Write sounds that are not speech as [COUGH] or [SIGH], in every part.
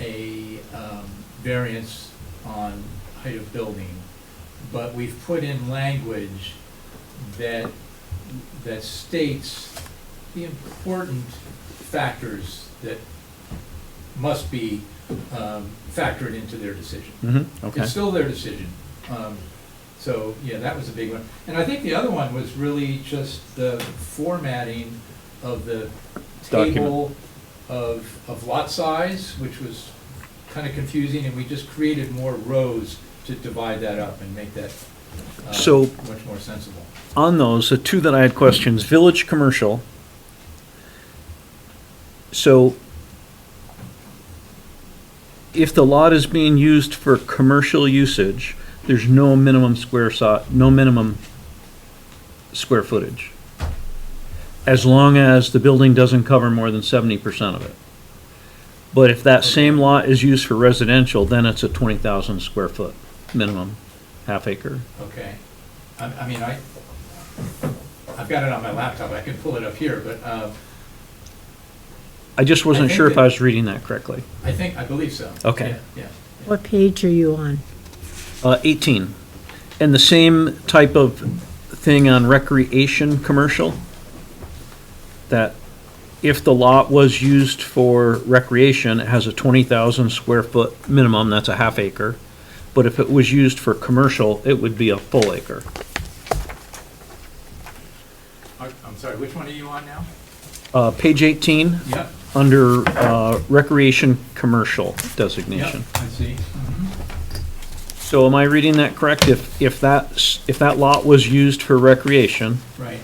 a um, variance on height of building, but we've put in language that, that states the important factors that must be um, factored into their decision. Mm-hmm, okay. It's still their decision. Um, So, yeah, that was a big one. And I think the other one was really just the formatting of the Document. table of, of lot size, which was kind of confusing, and we just created more rows to divide that up and make that uh, So- much more sensible. On those, the two that I had questions, village commercial. So if the lot is being used for commercial usage, there's no minimum square so, no minimum square footage. As long as the building doesn't cover more than seventy percent of it. But if that same lot is used for residential, then it's a twenty thousand square foot minimum, half acre. Okay. I, I mean, I, I've got it on my laptop. I can pull it up here, but uh, I just I wasn't think sure if that- I was reading that correctly. I think, I believe so. Okay. Yeah, Yeah. What page are you on? Uh, 18. And the same type of thing on recreation commercial? That if the lot was used for recreation, it has a 20,000 square foot minimum, that's a half acre. But if it was used for commercial, it would be a full acre. I- I'm sorry, which one are you on now? Uh, Page 18, Yep, under uh, recreation commercial designation. yep, I see. So am I reading that correct? If, if that, s- if that lot was used for recreation, Right,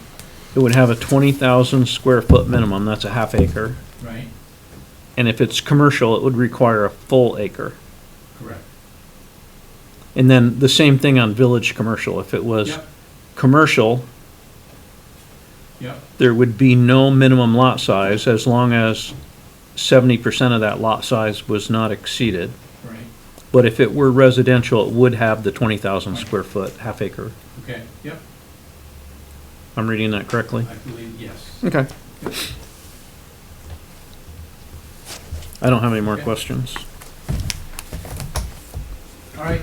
it would have a 20,000 square foot minimum, that's a half acre. right, And if it's commercial, it would require a full acre. correct. And then the same thing on village commercial. If it was Yep, commercial, yep, there would be no minimum lot size as long as 70% of that lot size was not exceeded. right, But if it were residential, it would have the 20,000 square foot half acre. okay, yep, I'm reading that correctly? I believe, yes. Okay. I don't have any more Okay. questions. All right.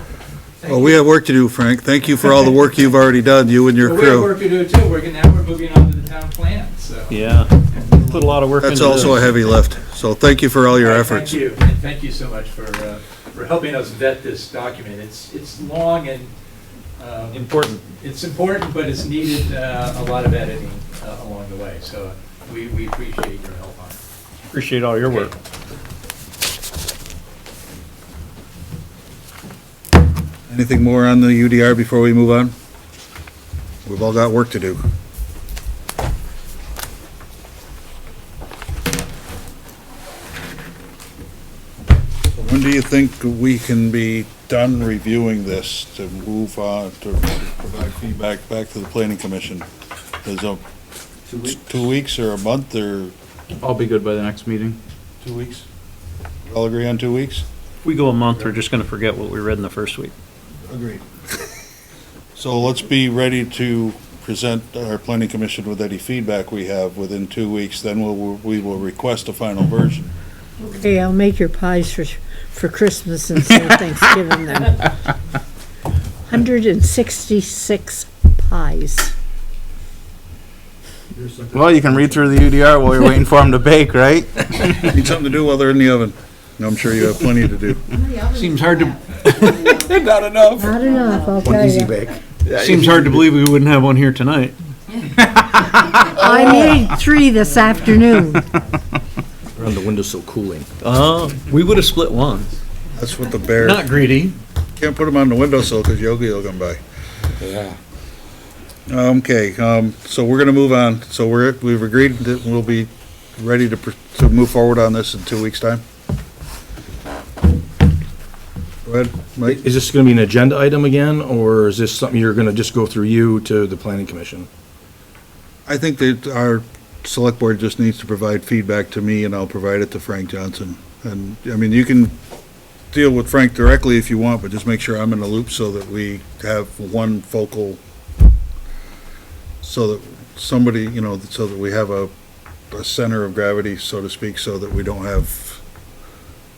Thank Well, you. we have work to do, Frank. Thank you for all the work you've already done, you and your Well, We have crew. work to do too. We're, gonna- now we're moving on to the town plan, so. Yeah, put a lot of work into That's this. also a heavy lift, so thank you for all your All right, efforts. Thank you, and thank you so much for, uh, for helping us vet this document. It's, it's long and, um, Important. it's important, but it's needed, uh, a lot of editing, uh, along the way, so we, we appreciate your help on it. Appreciate all your work. Anything more on the UDR before we move on? We've all got work to do. When do you think we can be done reviewing this to move on, to provide feedback back to the planning commission? Is it Two weeks. two weeks or a month or I'll be good by the next meeting. two weeks? All agree on two weeks? If we go a month, we're just gonna forget what we read in the first week. Agreed. [LAUGHS] So let's be ready to present our planning commission with any feedback we have within two weeks, then we'll, we will request a final [LAUGHS] version. Okay, I'll make your pies for, for Christmas instead of Thanksgiving then. Hundred and sixty-six pies. Well, you can read through the UDR while you're waiting for them to bake, right? Need something to do while they're in the oven. No, I'm sure you have plenty to do. Seems hard to, Not enough. Not enough, I'll tell you. seems hard to believe we wouldn't have one here tonight. I made three this afternoon. They're on the windowsill cooling. Uh, we would've split one. That's what the bear, Not greedy. can't put them on the windowsill because Yogi will come by. Yeah. Okay, um, so we're gonna move on. So we're, we've agreed that we'll be ready to, pr- to move forward on this in two weeks' time. Go ahead, Mike. Is this going to be an agenda item again, or is this something you're going to just go through you to the planning commission? I think that our select board just needs to provide feedback to me, and I'll provide it to Frank Johnson. And, I mean, you can deal with Frank directly if you want, but just make sure I'm in the loop so that we have one focal, so that somebody, you know, so that we have a, a center of gravity, so to speak, so that we don't have